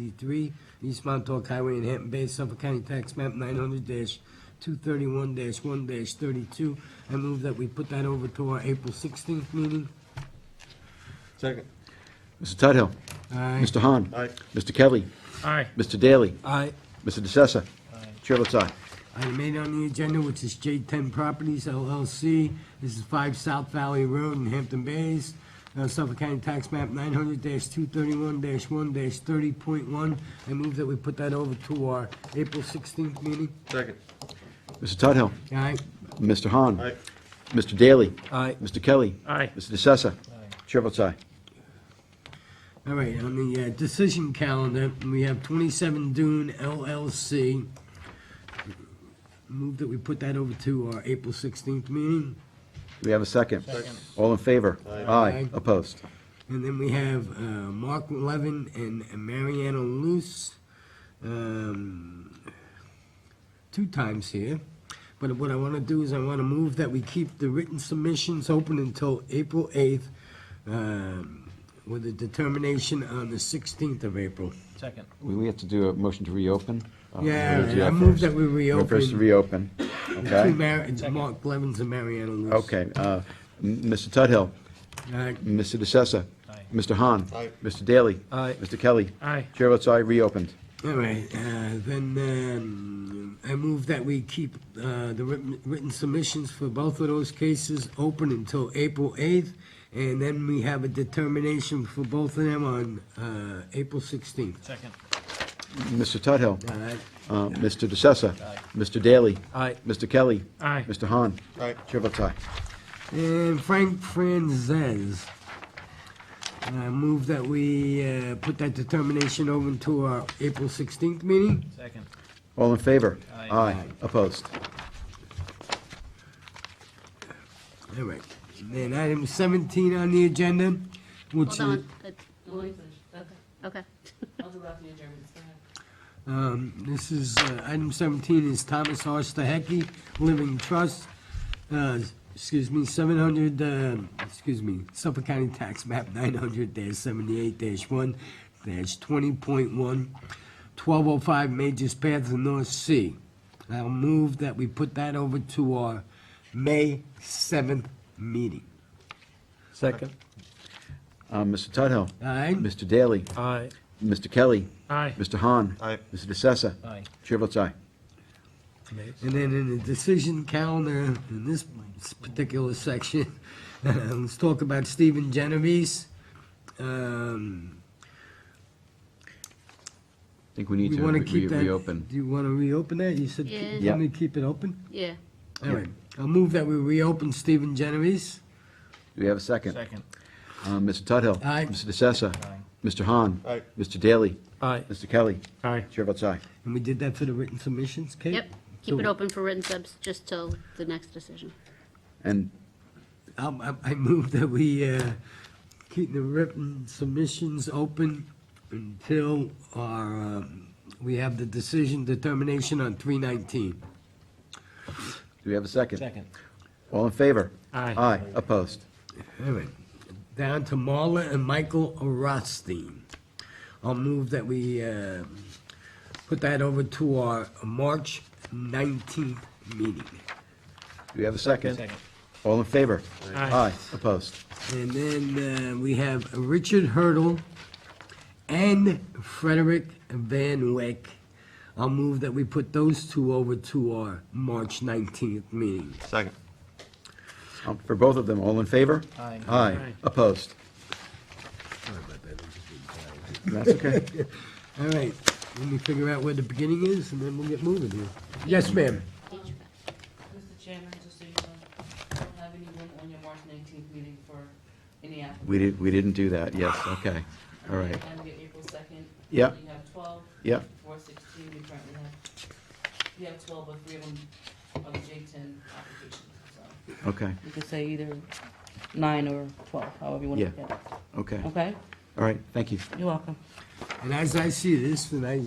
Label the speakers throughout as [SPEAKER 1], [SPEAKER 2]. [SPEAKER 1] 93, East Montauk Highway in Hampton Bays, Suffolk County Tax Map 900-231-1-32. I move that we put that over to our April 16th meeting.
[SPEAKER 2] Second.
[SPEAKER 3] Mr. Tudhill.
[SPEAKER 1] Aye.
[SPEAKER 3] Mr. Hahn.
[SPEAKER 2] Aye.
[SPEAKER 3] Mr. Kelly.
[SPEAKER 4] Aye.
[SPEAKER 3] Mr. Daly.
[SPEAKER 1] Aye.
[SPEAKER 3] Mr. DeCessa. Chair votes aye.
[SPEAKER 1] Item eight on the agenda, which is J10 Properties LLC. This is 5 South Valley Road in Hampton Bays, uh, Suffolk County Tax Map 900-231-1-30.1. I move that we put that over to our April 16th meeting.
[SPEAKER 2] Second.
[SPEAKER 3] Mr. Tudhill.
[SPEAKER 1] Aye.
[SPEAKER 3] Mr. Hahn.
[SPEAKER 2] Aye.
[SPEAKER 3] Mr. Daly.
[SPEAKER 1] Aye.
[SPEAKER 3] Mr. Kelly.
[SPEAKER 4] Aye.
[SPEAKER 3] Mr. DeCessa. Chair votes aye.
[SPEAKER 1] All right, on the uh, decision calendar, we have 27 Dune LLC. Move that we put that over to our April 16th meeting.
[SPEAKER 3] Do we have a second? All in favor? Aye.
[SPEAKER 1] Aye.
[SPEAKER 3] Opposed?
[SPEAKER 1] And then we have uh, Mark Levin and Mariana Luce, um, two times here. But what I want to do is I want to move that we keep the written submissions open until April 8th um, with a determination on the 16th of April.
[SPEAKER 4] Second.
[SPEAKER 3] We we have to do a motion to reopen?
[SPEAKER 1] Yeah,
[SPEAKER 3] Uh, we have to do
[SPEAKER 1] I
[SPEAKER 3] that
[SPEAKER 1] move
[SPEAKER 3] first.
[SPEAKER 1] that we reopen.
[SPEAKER 3] First to reopen,
[SPEAKER 1] The two
[SPEAKER 3] okay?
[SPEAKER 1] Mar- Mark Blevins and Mariana Lewis.
[SPEAKER 3] Okay, uh, m- Mr. Tudhill,
[SPEAKER 1] Aye.
[SPEAKER 3] Mr. DeCessa.
[SPEAKER 4] Aye.
[SPEAKER 3] Mr. Hahn.
[SPEAKER 2] Aye.
[SPEAKER 3] Mr. Daly.
[SPEAKER 1] Aye.
[SPEAKER 3] Mr. Kelly.
[SPEAKER 4] Aye.
[SPEAKER 3] Chair votes aye, reopened.
[SPEAKER 1] All right, uh, then um, I move that we keep uh, the written written submissions for both of those cases open until April 8th, and then we have a determination for both of them on uh, April 16th.
[SPEAKER 4] Second.
[SPEAKER 3] Mr. Tudhill.
[SPEAKER 1] All right,
[SPEAKER 3] Uh, Mr. DeCessa. Mr. Daly.
[SPEAKER 1] Aye.
[SPEAKER 3] Mr. Kelly.
[SPEAKER 4] Aye.
[SPEAKER 3] Mr. Hahn.
[SPEAKER 2] Aye.
[SPEAKER 3] Chair votes aye.
[SPEAKER 1] And Frank Franzese. I move that we uh, put that determination over to our April 16th meeting.
[SPEAKER 4] Second.
[SPEAKER 3] All in favor?
[SPEAKER 4] Aye.
[SPEAKER 3] Opposed?
[SPEAKER 1] All right, then item 17 on the agenda, which is...
[SPEAKER 5] Hold on. It- we- Okay.
[SPEAKER 6] I'll do after your German's, go ahead.
[SPEAKER 1] Um, This is, uh, item 17 is Thomas R. Stahecki, Living Trust, uh, excuse me, 700, uh, excuse me, Suffolk County Tax Map 900-78-1-20.1, 1205 Majors Path, the North Sea. I'll move that we put that over to our May 7th meeting.
[SPEAKER 4] Second.
[SPEAKER 3] Uh, Mr. Tudhill.
[SPEAKER 1] All right?
[SPEAKER 3] Mr. Daly.
[SPEAKER 4] Aye.
[SPEAKER 3] Mr. Kelly.
[SPEAKER 4] Aye.
[SPEAKER 3] Mr. Hahn.
[SPEAKER 2] Aye.
[SPEAKER 3] Mr. DeCessa.
[SPEAKER 4] Aye.
[SPEAKER 3] Chair votes aye.
[SPEAKER 1] And then in the decision calendar, in this particular section, let's talk about Stephen Genovese. Um,
[SPEAKER 3] I think we need
[SPEAKER 1] We
[SPEAKER 3] to
[SPEAKER 1] want to
[SPEAKER 3] re-
[SPEAKER 1] keep
[SPEAKER 3] re-
[SPEAKER 1] that.
[SPEAKER 3] reopen.
[SPEAKER 1] Do you want to reopen that? You said,
[SPEAKER 5] Yeah.
[SPEAKER 1] keep- you want me to keep it open?
[SPEAKER 5] Yeah.
[SPEAKER 1] All right, I'll move that we reopen Stephen Genovese.
[SPEAKER 3] Do we have a second?
[SPEAKER 4] Second.
[SPEAKER 3] Uh, Mr. Tudhill.
[SPEAKER 1] Aye.
[SPEAKER 3] Mr. DeCessa.
[SPEAKER 4] Aye.
[SPEAKER 3] Mr. Hahn.
[SPEAKER 2] Aye.
[SPEAKER 3] Mr. Daly.
[SPEAKER 4] Aye.
[SPEAKER 3] Mr. Kelly.
[SPEAKER 4] Aye.
[SPEAKER 3] Chair votes aye.
[SPEAKER 1] And we did that for the written submissions, Kate?
[SPEAKER 5] Yep. Keep it open for written subs just till the next decision.
[SPEAKER 3] And
[SPEAKER 1] Um, I I move that we uh, keep the written submissions open until our, um, we have the decision determination on 319.
[SPEAKER 3] do we have a second?
[SPEAKER 4] Second.
[SPEAKER 3] All in favor?
[SPEAKER 4] Aye.
[SPEAKER 3] Aye. Opposed?
[SPEAKER 1] All right, down to Marla and Michael Rothstein. I'll move that we uh, put that over to our March 19th meeting.
[SPEAKER 3] Do we have a second?
[SPEAKER 4] Second.
[SPEAKER 3] All in favor?
[SPEAKER 4] Aye.
[SPEAKER 3] Aye. Opposed?
[SPEAKER 1] And then uh, we have Richard Hurdle and Frederick Van Wyck. I'll move that we put those two over to our March 19th meeting.
[SPEAKER 2] Second.
[SPEAKER 3] Um, For both of them, all in favor?
[SPEAKER 4] Aye.
[SPEAKER 3] Aye.
[SPEAKER 4] Aye.
[SPEAKER 3] Opposed? That's okay.
[SPEAKER 1] All right, let me figure out where the beginning is, and then we'll get moving here. Yes, ma'am.
[SPEAKER 6] Mr. Chairman, just so you know, you don't have anyone on your March nineteenth meeting for any applicants.
[SPEAKER 3] We did, we didn't do that, yes, okay. All right,
[SPEAKER 6] And your April second.
[SPEAKER 3] Yeah.
[SPEAKER 6] You have twelve,
[SPEAKER 3] yeah,
[SPEAKER 6] four sixteen, you currently have, you have twelve, but three of them are the J ten applications, so.
[SPEAKER 3] okay,
[SPEAKER 6] You could say either nine or twelve, however you
[SPEAKER 3] wanna Yeah. look okay. All
[SPEAKER 6] Okay,
[SPEAKER 3] right, thank you.
[SPEAKER 6] you're welcome.
[SPEAKER 1] And as I see this, and I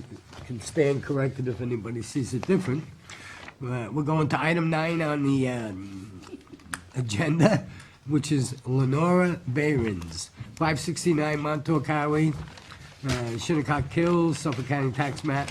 [SPEAKER 1] can stand corrected if anybody sees it different, uh, we're going to item nine on the um, agenda, which is Lenora Behrens, 569 Montauk Highway, uh, Shinnecock Hills, Suffolk County Tax Map